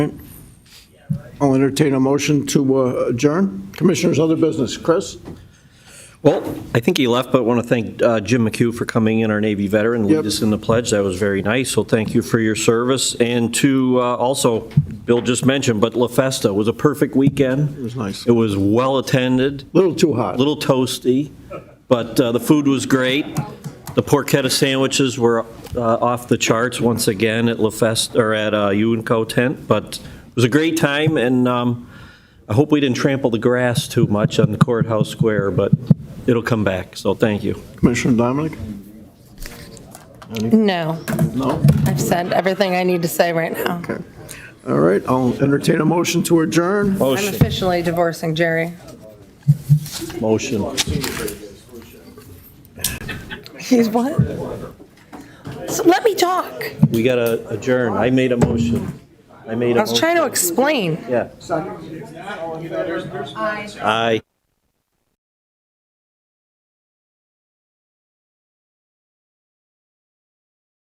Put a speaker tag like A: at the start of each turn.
A: I'll entertain a motion to uh, adjourn. Commissioners, other business. Chris?
B: Well, I think he left, but want to thank uh, Jim McHugh for coming in, our Navy veteran,
A: Yep.
B: lead us in the pledge. That was very nice, so thank you for your service. And to uh, also, Bill just mentioned, but La Festa was a perfect weekend. It
A: was nice.
B: It was well-attended,
A: Little too hot.
B: a little toasty, but uh, the food was great. The porchetta sandwiches were uh, off the charts once again at La Festa, or at uh, UNCO tent, but it was a great time, and um, I hope we didn't trample the grass too much on the courthouse square, but it'll come back, so thank you.
A: Commissioner Dominic?
C: No,
A: No?
C: I've said everything I need to say right now.
A: Okay. All right, I'll entertain a motion to adjourn.
C: I'm
B: Motion,
C: officially divorcing Jerry.
B: motion.
C: He's what? So let me talk.
B: We got to adjourn. I made a motion. I made a
C: I
B: motion.
C: was trying to explain.
B: Yeah. Aye.